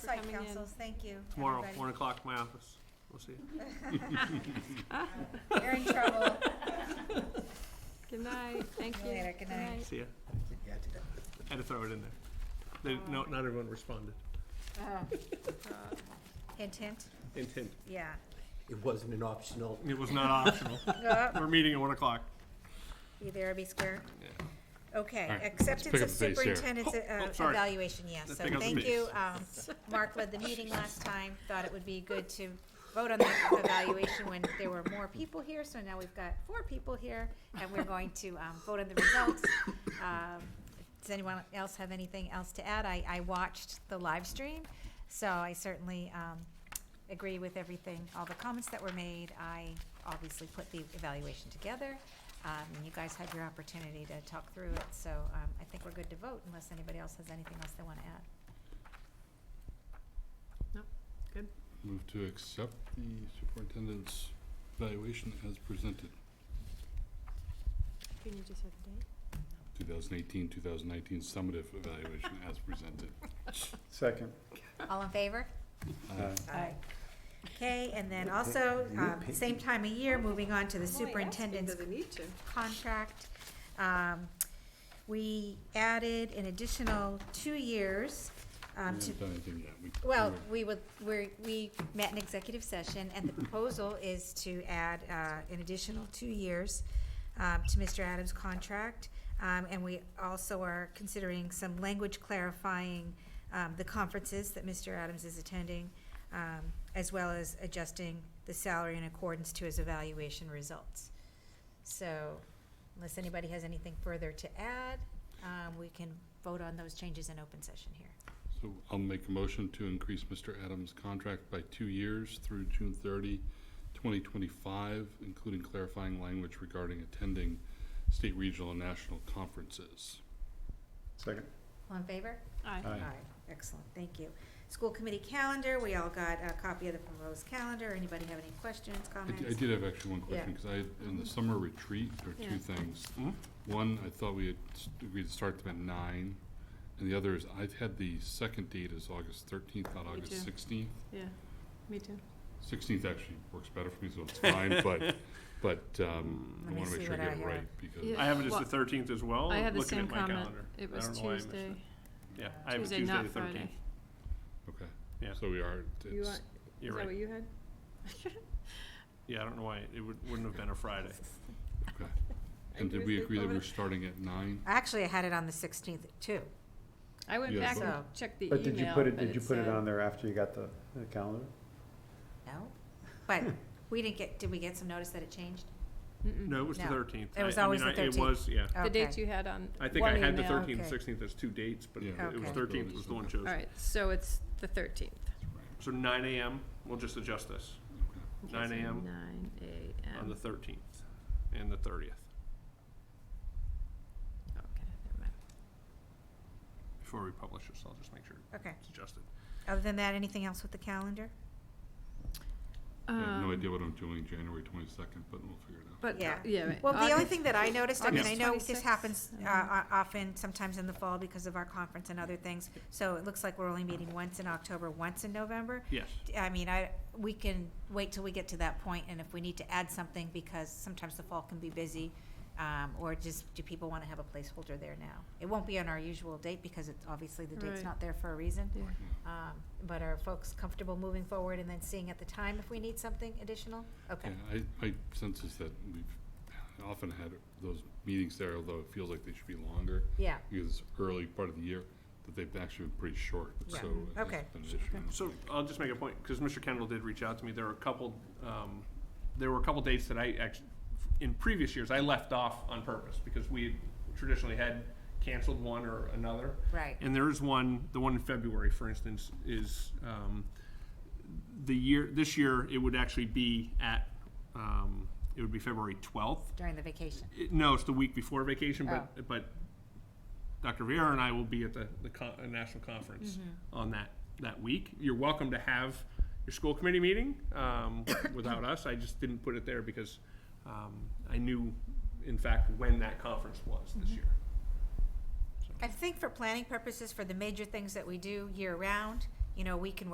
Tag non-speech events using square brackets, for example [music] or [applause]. right, coming in. councils, thank you. Tomorrow, everybody. one o'clock, my office. We'll see you. You're in trouble. [laughs] Good night, thank See you. you later. Good night. See ya. Had to throw it in there. They, no, not everyone responded. Uh, [laughs] Hint, hint, Intent. yeah. It wasn't an optional. It was not optional. Oh, We're meeting at one o'clock. You there, be square? Okay, right, let's acceptance pick of up the pace here. superintendent's uh, oh, sorry. evaluation, yes, Let's so pick up the thank pace. you. um, Mark led the meeting last time, thought it would be good to vote on the evaluation when there were more people here, so now we've got four people here, and we're going to um, vote on the results. Um, Does anyone else have anything else to add? I, I watched the live stream, so I certainly um, agree with everything, all the comments that were made. I obviously put the evaluation together. Um, and you guys had your opportunity to talk through it, so, um, I think we're good to vote unless anybody else has anything else they wanna add. Move to accept the superintendent's evaluation as presented, Can you just have the date? 2018, 2019 summative evaluation as presented. Second. All in favor? Aye. Aye. Okay, and then also, um, same time of year, moving on to the superintendent's Doesn't need to. contract. Um, we added an additional two years, We um, to haven't done anything yet. We- Well, we're- we would, we're, we met in executive session, and the proposal is to add, uh, an additional two years, um, to Mr. Adams' contract. Um, and we also are considering some language clarifying, um, the conferences that Mr. Adams is attending, um, as well as adjusting the salary in accordance to his evaluation results. So, unless anybody has anything further to add, um, we can vote on those changes in open session here. So I'll make a motion to increase Mr. Adams' contract by two years through June 30, 2025, including clarifying language regarding attending state, regional, and national conferences. Second. All in favor? Aye. Uh, Aye. Excellent, thank you. School committee calendar, we all got a copy of the proposed calendar. Anybody have any questions, I d- I comments? did have actually one Yeah. question, because I, had- in the summer retreat, there were Yeah. two things. Mhm. One, I thought we had s- agreed to start them at nine, and the other is, I've had the second date is August thirteenth, not Me too. August sixteenth. Yeah, me too. Sixteenth actually works better for me, so it's fine, but, but, um, I Let me wanna see make sure I what I get it have. right, because. Yeah. I have it as Well, the thirteenth as well. I had the looking same at my comment. calendar. It I was don't know why I missed Tuesday, it. Yeah, I have it Tuesday, Tuesday the not Friday. thirteenth. Okay. Yeah. So we are, You it's, want- You're right. you had? Yeah, I don't know why. It would, wouldn't have been a Friday. okay. And did we agree that we're starting at nine? Actually, I had it on the sixteenth too. I went Yeah, back but- and checked the email. But did you put it, did you put it said- on there after you got the the calendar? No? But Hmm. we didn't get, did we get some notice that it changed? Mm-mm. No, it was the No, thirteenth. it was always the It 13th. was, yeah. Okay. The dates you had on I think one I had the email. thirteenth and Okay. sixteenth as two dates, but Yeah. it was Okay. thirteenth was the one All chosen. right, so it's the thirteenth. So nine AM, we'll just adjust this, nine AM Nine AM. on the thirteenth and the thirtieth, Okay, never mind. before we publish this, I'll just make sure Okay. it's adjusted. Other than that, anything else with the calendar? I have no Um, idea what I'm doing January twenty-second, but we'll figure it out. But, Yeah. uh, yeah. right. Well, the only August- thing that I noticed, I mean, I August know this 26th, happens I uh, don't know. uh, often, sometimes in the fall because of our conference and other things. So it looks like we're only meeting once in October, once in November. Yes, I mean, I, we can wait till we get to that point, and if we need to add something, because sometimes the fall can be busy, um, or just, do people wanna have a placeholder there now? It won't be on our usual date, because it's, obviously, the date's Right. not there for a reason. Yeah. Um, but are folks comfortable moving forward and then seeing at the time if we need something additional? Okay, Yeah, I, my sense is that we've often had those meetings there, although it feels like they should be longer, yeah, because it's early part of the year, that they've actually been pretty short, so. Yeah. it hasn't Okay. been an issue, I don't so think. I'll just make a point, because Mr. Kendall did reach out to me, there were a couple, um, there were a couple dates that I actually, in previous years, I left off on purpose, because we traditionally had canceled one or another. right, And there is one, the one in February, for instance, is um, the year, this year, it would actually be at, um, it would be February 12th. during the vacation. It- No, it's the week before vacation, but, but Dr. Viera and I will be at the, the con- uh, national conference on that, that week. You're welcome to have your school committee meeting um, without us. I just didn't put it there because um, I knew, in fact, when that conference was this year. I think for planning purposes, for the major things that we do year-round, you you know, we can